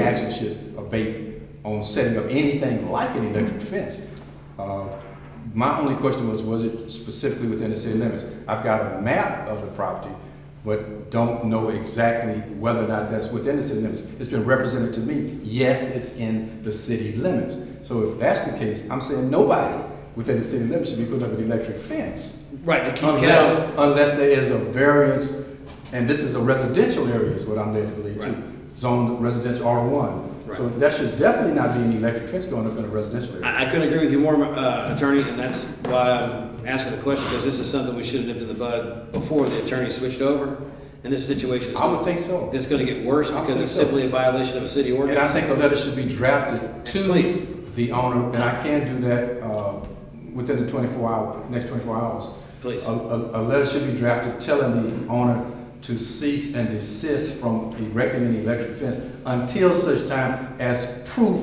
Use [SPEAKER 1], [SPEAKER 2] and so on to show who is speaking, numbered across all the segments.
[SPEAKER 1] action should abate on setting up anything like an electric fence. Uh, My only question was, was it specifically within the city limits? I've got a map of the property, but don't know exactly whether or not that's within the city limits. It's been represented to me, yes, it's in the city limits. So if that's the case, I'm saying nobody within the city limits should be putting up an electric fence.
[SPEAKER 2] Right, to
[SPEAKER 1] Oh,
[SPEAKER 2] keep cats.
[SPEAKER 1] Unless, unless there is a variance, and this is a residential area is what I'm led to believe
[SPEAKER 2] Right.
[SPEAKER 1] too. Zoned residential R one. So
[SPEAKER 2] Right.
[SPEAKER 1] that should definitely not be any electric fence going up in a residential area.
[SPEAKER 2] I, I couldn't agree with you more, uh, attorney, and that's why I'm asking the question, because this is something we should have nipped in the bud before the attorney switched over, and this situation is.
[SPEAKER 1] I would think so.
[SPEAKER 2] It's gonna get worse
[SPEAKER 1] I would
[SPEAKER 2] because it's
[SPEAKER 1] think so.
[SPEAKER 2] simply a violation of a city
[SPEAKER 1] And I
[SPEAKER 2] ordinance.
[SPEAKER 1] think a letter should be drafted
[SPEAKER 2] Please.
[SPEAKER 1] to the owner, and I can do that, uh, within the twenty-four hour, next twenty-four hours.
[SPEAKER 2] Please.
[SPEAKER 1] A, a, a letter should be drafted telling the owner to cease and desist from erecting an electric fence until such time as proof,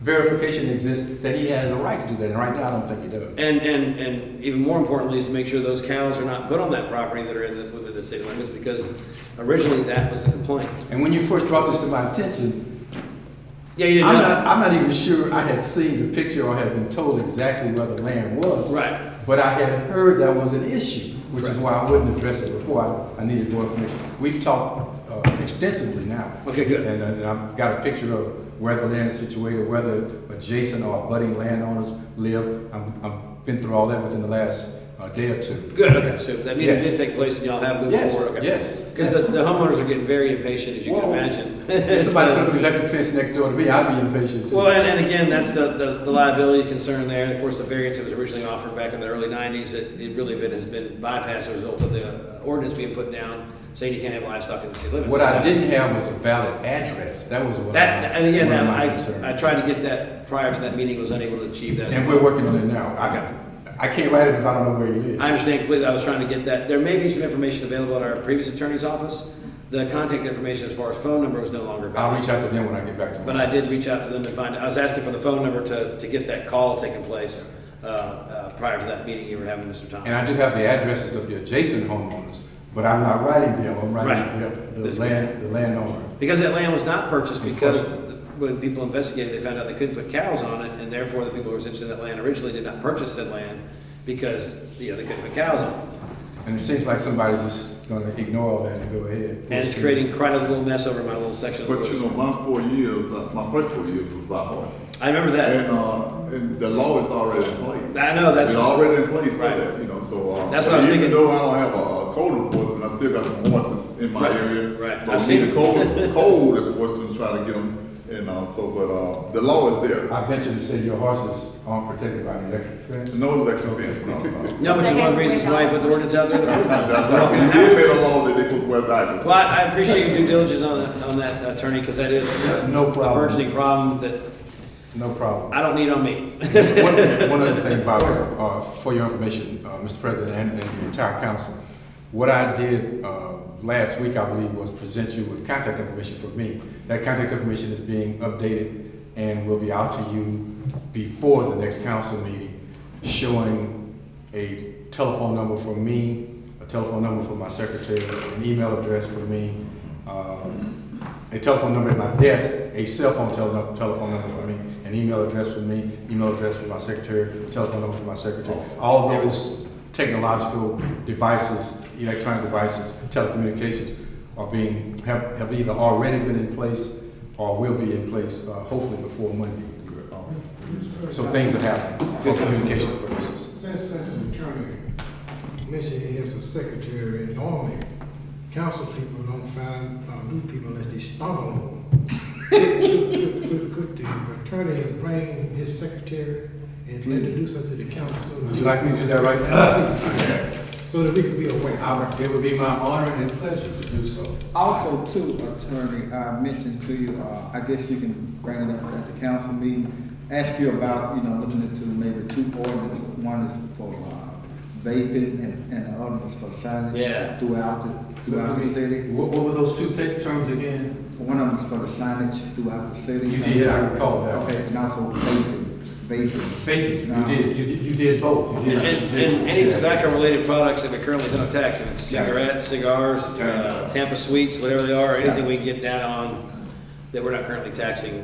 [SPEAKER 1] verification exists that he has a right to do that, and right now, I don't think he does.
[SPEAKER 2] And, and, and even more importantly is to make sure those cows are not put on that property that are in the, within the city limits, because originally that was the complaint.
[SPEAKER 1] And when you first brought this to my attention,
[SPEAKER 2] Yeah, you didn't
[SPEAKER 1] I'm
[SPEAKER 2] know.
[SPEAKER 1] not, I'm not even sure I had seen the picture or had been told exactly where the land was.
[SPEAKER 2] Right.
[SPEAKER 1] But I had heard that was an issue, which is
[SPEAKER 2] Correct.
[SPEAKER 1] why I wouldn't address it before. I, I needed more information. We've talked uh, extensively now.
[SPEAKER 2] Okay, good.
[SPEAKER 1] And, and I've got a picture of where the land is situated, whether adjacent or abutting landowners live. I'm, I've been through all that within the last uh, day or two.
[SPEAKER 2] Good, okay, so that meeting
[SPEAKER 1] Yes.
[SPEAKER 2] did take place and y'all have moved
[SPEAKER 1] Yes,
[SPEAKER 2] forward, okay?
[SPEAKER 1] yes,
[SPEAKER 2] Because the, the homeowners are getting very impatient, as you can
[SPEAKER 1] Whoa.
[SPEAKER 2] imagine.
[SPEAKER 1] If somebody put up
[SPEAKER 2] So-
[SPEAKER 1] an electric fence next door to me, I'd be impatient too.
[SPEAKER 2] Well, and, and again, that's the, the the liability concern there, and of course, the variance that was originally offered back in the early nineties, it, it really been, has been bypassed as a result of the uh, ordinance being put down, saying you can't have livestock in the city limits.
[SPEAKER 1] What I didn't have was a valid address. That was what.
[SPEAKER 2] That, and again,
[SPEAKER 1] one of my
[SPEAKER 2] I,
[SPEAKER 1] concerns.
[SPEAKER 2] I tried to get that prior to that meeting, was unable to achieve that.
[SPEAKER 1] And we're working on it now.
[SPEAKER 2] Okay.
[SPEAKER 1] I, I can't write it if I don't know where you live.
[SPEAKER 2] I understand completely, I was trying to get that, there may be some information available at our previous attorney's office. The contact information as far as phone number was no longer
[SPEAKER 1] I'll
[SPEAKER 2] valid.
[SPEAKER 1] reach out to them when I get back to.
[SPEAKER 2] But
[SPEAKER 1] my
[SPEAKER 2] I did
[SPEAKER 1] office.
[SPEAKER 2] reach out to them and find, I was asking for the phone number to, to get that call taking place, uh, uh, prior to that meeting you were having, Mr.
[SPEAKER 1] And I
[SPEAKER 2] Thompson.
[SPEAKER 1] do have the addresses of the adjacent homeowners, but I'm not writing them. I'm writing
[SPEAKER 2] Right.
[SPEAKER 1] the, the
[SPEAKER 2] This-
[SPEAKER 1] land, the landowner.
[SPEAKER 2] Because that land was not purchased because
[SPEAKER 1] Of course.
[SPEAKER 2] the- when people investigated, they found out they couldn't put cows on it, and therefore the people who were interested in that land originally did not purchase that land because, you know, they couldn't put cows on it.
[SPEAKER 1] And it seems like somebody's just gonna ignore all that and go ahead.
[SPEAKER 2] And it's creating quite a little mess over my little section. of the
[SPEAKER 3] But you
[SPEAKER 2] woods.
[SPEAKER 3] know, my four years, uh, my first four years was by horses.
[SPEAKER 2] I remember that.
[SPEAKER 3] And, uh, and the law is already in place.
[SPEAKER 2] I know, that's-
[SPEAKER 3] It's already in place for
[SPEAKER 2] Right.
[SPEAKER 3] that, you know, so. uh,
[SPEAKER 2] That's what I was thinking.
[SPEAKER 3] Even though I don't have a a code enforcement, I still got some horses in my
[SPEAKER 2] Right,
[SPEAKER 3] area.
[SPEAKER 2] right.
[SPEAKER 3] So
[SPEAKER 2] I've
[SPEAKER 3] we
[SPEAKER 2] seen
[SPEAKER 3] need
[SPEAKER 2] it.
[SPEAKER 3] Code, code enforcement, try to get them, and, uh, so, but, uh, the law is there.
[SPEAKER 1] I venture to say your horses aren't protected by an electric fence.
[SPEAKER 3] No electric fence, no, no.
[SPEAKER 2] No, which is one of the reasons why I put the ordinance out there in the first place.
[SPEAKER 3] That's right. We did make a law that they could wear diapers.
[SPEAKER 2] Well, I I appreciate your due diligence on that, on that attorney, because that is a
[SPEAKER 1] No
[SPEAKER 2] a
[SPEAKER 1] problem.
[SPEAKER 2] burgeoning problem that
[SPEAKER 1] No problem.
[SPEAKER 2] I don't need on me.
[SPEAKER 1] One one other thing, Bob, uh, for your information, uh, Mr. President and and the entire council, what I did uh, last week, I believe, was present you with contact information for me. That contact information is being updated and will be out to you before the next council meeting, showing a telephone number for me, a telephone number for my secretary, an email address for me, um, a telephone number at my desk, a cell phone tele- telephone number for me, an email address for me, email address for my secretary, telephone number for my secretary. All those technological devices, electronic devices, telecommunications are being, have, have either already been in place or will be in place, uh, hopefully before Monday. So things are happening for communication purposes.
[SPEAKER 4] Since, since the attorney mentioned he has a secretary, normally council people don't find, uh, new people that they stumble on. Could, could- could the attorney bring his secretary and introduce her to the council? so that
[SPEAKER 1] Would
[SPEAKER 4] we-
[SPEAKER 1] you like me to do that right now?
[SPEAKER 4] So that we could be aware.
[SPEAKER 1] I- Uh, It would be my honor and pleasure to do so.
[SPEAKER 5] Also too, attorney, I mentioned to you, uh, I guess you can bring it up at the council meeting, ask you about, you know, looking into maybe two ordinances. One is for uh, vaping and, and the other is for
[SPEAKER 2] Yeah.
[SPEAKER 5] signage throughout the, throughout the city.
[SPEAKER 1] What, what were those two ta- terms again?
[SPEAKER 5] One of them is for the signage throughout the city.
[SPEAKER 1] You did, I recall that.
[SPEAKER 5] Okay, and also vaping, vaping.
[SPEAKER 1] Baby, you
[SPEAKER 5] No.
[SPEAKER 1] did, you did, you did both. You
[SPEAKER 2] And,
[SPEAKER 1] did- you did-
[SPEAKER 2] and any
[SPEAKER 1] yeah.
[SPEAKER 2] tobacco-related products that we currently don't tax, if it's cigarettes, cigars, uh, Tampa Sweets, whatever they are, anything we can get down on, that we're not currently taxing